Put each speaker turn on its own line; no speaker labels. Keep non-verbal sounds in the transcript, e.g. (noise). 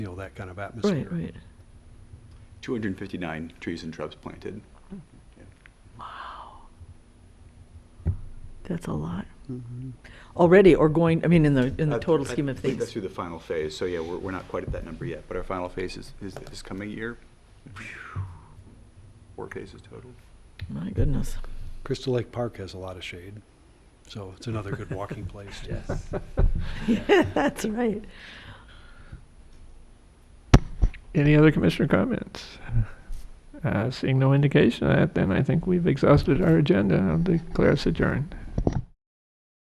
you know, that kind of atmosphere.
Right, right.
259 trees and shrubs planted.
That's a lot. Already, or going, I mean, in the, in the
Uh,
total
Mm-hmm. I
scheme of
believe That's
things.
through the final phase, so yeah, we're, we're not quite at that number yet, but our final phase is, is this coming year. Four phases total.
My goodness.
Crystal Lake Park has a lot of shade, so it's another good walking place.
Yes.
(laughs) That's right.
Any other commissioner comments? Uh, seeing no indication of that, then I think we've exhausted our agenda. I'll declare us adjourned.